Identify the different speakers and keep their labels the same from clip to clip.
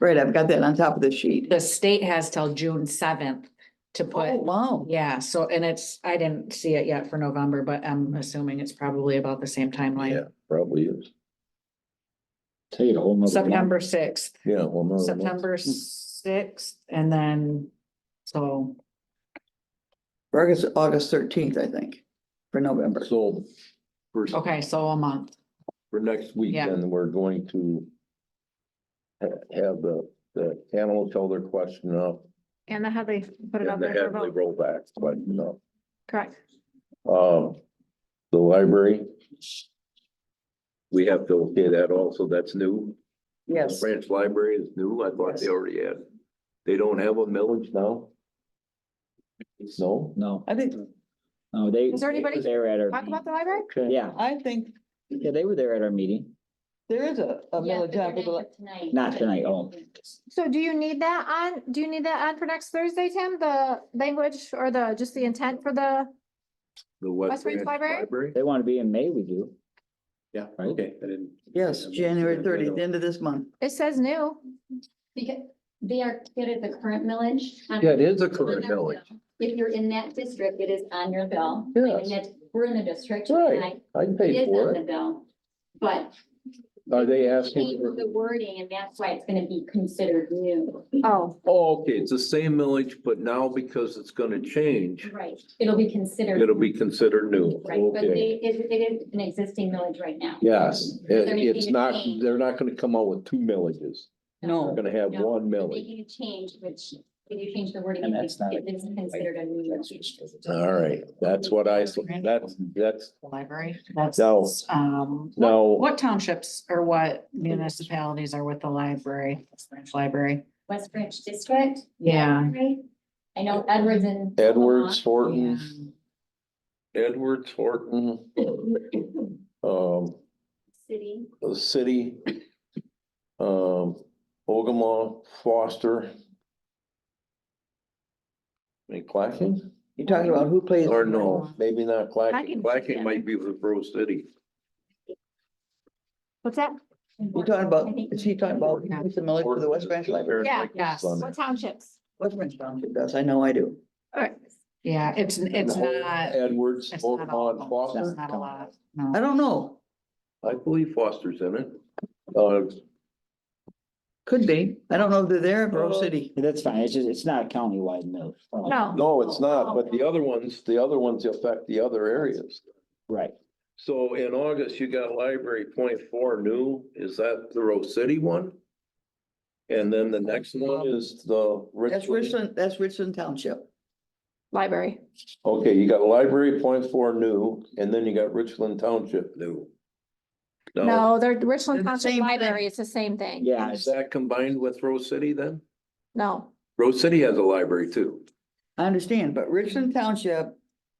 Speaker 1: Right, I've got that on top of the sheet.
Speaker 2: The state has till June seventh to
Speaker 1: Oh,
Speaker 2: put,
Speaker 1: wow.
Speaker 2: yeah, so, and it's, I didn't see it yet for November, but I'm assuming it's probably about the same
Speaker 3: Yeah,
Speaker 2: timeline.
Speaker 3: probably is. Take it a whole nother. month.
Speaker 2: September sixth,
Speaker 3: Yeah, well, no.
Speaker 2: September sixth, and then, so,
Speaker 1: August, August thirteenth, I think, for November.
Speaker 3: So for,
Speaker 2: okay, so a month.
Speaker 3: for next week,
Speaker 2: Oh. Yeah.
Speaker 3: then we're going to ha- have the, the animal tell their question up
Speaker 4: And the Hadley, put it
Speaker 3: and
Speaker 4: out
Speaker 3: the
Speaker 4: there for a
Speaker 3: Hadley
Speaker 4: vote.
Speaker 3: rollback, but no.
Speaker 4: Correct.
Speaker 3: Um, the library. We have to okay that also, that's new.
Speaker 1: Yes,
Speaker 3: Branch Library is new, I thought they
Speaker 1: Yes.
Speaker 3: already had. They don't have a millage now? No?
Speaker 5: No,
Speaker 1: I think,
Speaker 5: no, they.
Speaker 4: Is there
Speaker 5: they were
Speaker 4: anybody
Speaker 5: There at our.
Speaker 4: Talk
Speaker 5: meeting.
Speaker 4: about the library?
Speaker 3: Okay.
Speaker 5: Yeah,
Speaker 1: I think
Speaker 5: yeah, they were there at our meeting.
Speaker 1: there is a, a
Speaker 6: Yeah, but
Speaker 1: millage
Speaker 6: they're
Speaker 1: on
Speaker 6: doing
Speaker 1: the,
Speaker 6: it Tonight.
Speaker 5: Not tonight, oh.
Speaker 4: So do you need that on, do you need that on for next Thursday, Tim? The language or the, just the intent for the,
Speaker 3: The West
Speaker 4: West Branch
Speaker 3: Branch
Speaker 4: Library?
Speaker 3: Library?
Speaker 5: They want to be in May, we do.
Speaker 7: Yeah,
Speaker 5: Right.
Speaker 7: okay, I didn't.
Speaker 1: yes, January thirtieth, end of this month.
Speaker 4: it says new.
Speaker 6: Because they are considered the current millage. Um, on-
Speaker 3: Yeah, it is a
Speaker 6: on
Speaker 3: current
Speaker 6: their
Speaker 3: millage.
Speaker 6: bill. If you're in that district, it is on your bill.
Speaker 3: Yes.
Speaker 6: And that's, we're in the district.
Speaker 3: Right.
Speaker 6: and I-
Speaker 3: I
Speaker 6: It
Speaker 3: paid
Speaker 6: is
Speaker 3: for
Speaker 6: on the
Speaker 3: it.
Speaker 6: bill, but
Speaker 3: Are they
Speaker 6: change
Speaker 3: asking?
Speaker 6: the wording and that's why it's gonna be considered new.
Speaker 4: Oh,
Speaker 3: Oh, okay, it's the same millage, but now because it's gonna change,
Speaker 6: Right, it'll be considered.
Speaker 3: it'll be considered new.
Speaker 6: Right, but
Speaker 3: Okay.
Speaker 6: they, it, it is an existing millage right now.
Speaker 3: Yes,
Speaker 6: They're
Speaker 3: it-
Speaker 6: making
Speaker 3: it's
Speaker 6: a
Speaker 3: not,
Speaker 6: change.
Speaker 3: they're not gonna come out with two millages. They're
Speaker 1: No.
Speaker 3: gonna have
Speaker 6: No.
Speaker 3: one
Speaker 6: They're
Speaker 3: millage.
Speaker 6: Making a change, which if you change the wording,
Speaker 5: And
Speaker 6: it
Speaker 5: that's not-
Speaker 6: it is considered a new millage.
Speaker 3: All right, that's what I, s- that's, that's,
Speaker 2: Library, that's,
Speaker 3: No.
Speaker 2: um,
Speaker 3: No.
Speaker 2: what, what townships or what municipalities are with the library, Branch Library?
Speaker 6: West Branch District,
Speaker 2: Yeah.
Speaker 6: right? I know Edwards and.
Speaker 3: Edwards,
Speaker 2: Yeah.
Speaker 3: Horton, Edwards, Horton, um,
Speaker 6: City.
Speaker 3: the city, um, Ogama, Foster. And Clacking,
Speaker 1: You're talking about who plays.
Speaker 3: or no, maybe not Clacking,
Speaker 4: Clacking,
Speaker 3: Clacking
Speaker 4: yeah.
Speaker 3: might be with Rose City.
Speaker 4: what's that?
Speaker 1: You're talking
Speaker 6: I
Speaker 1: about,
Speaker 6: think-
Speaker 1: is he talking about who's the millage for the West Branch Library?
Speaker 4: Yeah.
Speaker 2: Yes.
Speaker 4: What townships?
Speaker 1: West Branch Township does, I know I do.
Speaker 4: All right.
Speaker 2: Yeah, it's, it's not,
Speaker 3: Edwards,
Speaker 2: it's not a
Speaker 3: Ogama, and
Speaker 2: lot,
Speaker 3: Foster.
Speaker 2: it's not a lot, no.
Speaker 1: I don't know,
Speaker 3: I believe Foster's in it. Uh,
Speaker 1: could be. I don't know if they're there,
Speaker 3: Uh,
Speaker 1: Grove City.
Speaker 5: That's fine. It's just, it's not a countywide Uh, mill.
Speaker 4: No.
Speaker 3: no, it's not, but the other ones, the other ones affect the other areas.
Speaker 5: Right.
Speaker 3: So in August, you got library point four new, is that the Rose City one? And then the next one is the
Speaker 1: That's
Speaker 3: Richland.
Speaker 1: Richland, that's Richland Township.
Speaker 4: Library.
Speaker 3: Okay, you got library point four new, and then you got Richland Township new. Now,
Speaker 4: No, they're
Speaker 1: They're
Speaker 4: Richland
Speaker 1: the
Speaker 4: Township
Speaker 1: same
Speaker 4: Library.
Speaker 1: thing.
Speaker 4: It's the same thing.
Speaker 5: Yeah,
Speaker 3: Is that combined with Rose City then?
Speaker 4: No.
Speaker 3: Rose City has a library too.
Speaker 1: I understand, but Richland Township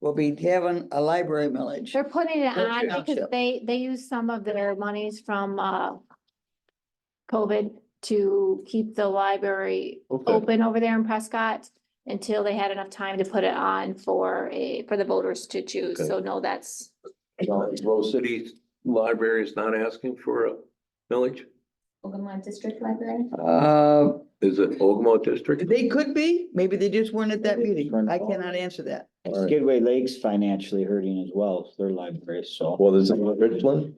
Speaker 1: will be having a library millage.
Speaker 4: They're putting it
Speaker 1: They're
Speaker 4: on because
Speaker 1: township.
Speaker 4: they, they use some of their monies from, uh, COVID to keep the library
Speaker 1: Oh.
Speaker 3: Okay.
Speaker 4: open over there in Prescott until they had enough time to put it on for a, for the voters to choose.
Speaker 3: Okay.
Speaker 4: So no, that's,
Speaker 3: Now, Uh, Rose City Library is not asking for a millage?
Speaker 6: Ogama District Library.
Speaker 1: Uh,
Speaker 3: Is it Ogama District?
Speaker 1: They could be, maybe they just weren't at that meeting. I cannot answer that.
Speaker 3: Alright.
Speaker 5: Skidway Lake's financially hurting as well, their library, so.
Speaker 3: Well, is it Richland?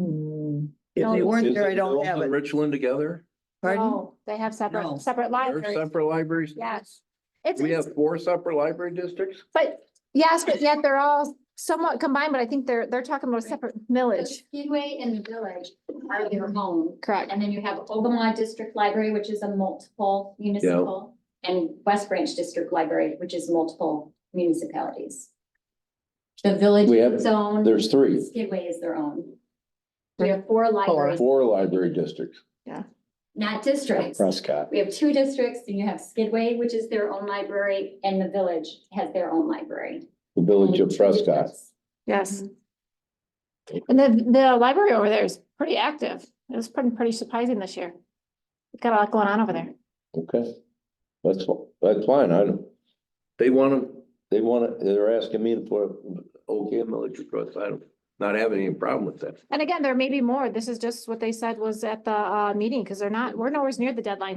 Speaker 2: Mm.
Speaker 1: If they
Speaker 4: No.
Speaker 1: weren't
Speaker 3: Is
Speaker 1: there, I don't
Speaker 3: Rose
Speaker 1: have
Speaker 3: and
Speaker 1: it.
Speaker 3: Richland together?
Speaker 1: Pardon?
Speaker 4: no, they have
Speaker 1: No.
Speaker 4: separate, separate
Speaker 3: They're
Speaker 4: libraries.
Speaker 3: separate libraries?
Speaker 4: Yes. It's,
Speaker 3: We
Speaker 4: it's-
Speaker 3: have four separate library districts?
Speaker 4: but yes, but yet they're all somewhat combined, but I think they're, they're talking about a separate
Speaker 6: So
Speaker 4: millage.
Speaker 6: Skidway and the Village are their own.
Speaker 4: Correct.
Speaker 6: And then you have Ogama District Library, which is a multiple municipal, and West Branch District Library, which is multiple municipalities. The Village
Speaker 3: We
Speaker 6: is
Speaker 3: have-
Speaker 6: its own,
Speaker 3: There's three,
Speaker 6: Skidway is their own. We have four libraries,
Speaker 3: four library districts.
Speaker 6: not districts.
Speaker 5: Prescott.
Speaker 6: We have two districts, and you have Skidway, which is their own library, and the Village has their own library.
Speaker 3: The village of
Speaker 6: Two
Speaker 3: Prescott.
Speaker 6: districts.
Speaker 4: Yes. Mm-hmm. And the, the library over there is pretty active. It was pretty, pretty surprising this year. Got a lot going on over there.
Speaker 3: Okay. That's, fi- that's fine, I don't. They wanna, they wanna, they're asking me to put, okay, millage across, I don't, not having any problem with that.
Speaker 4: And again, there may be more. This is just what they said was at the, uh, meeting, because they're not, we're nowhere near the deadline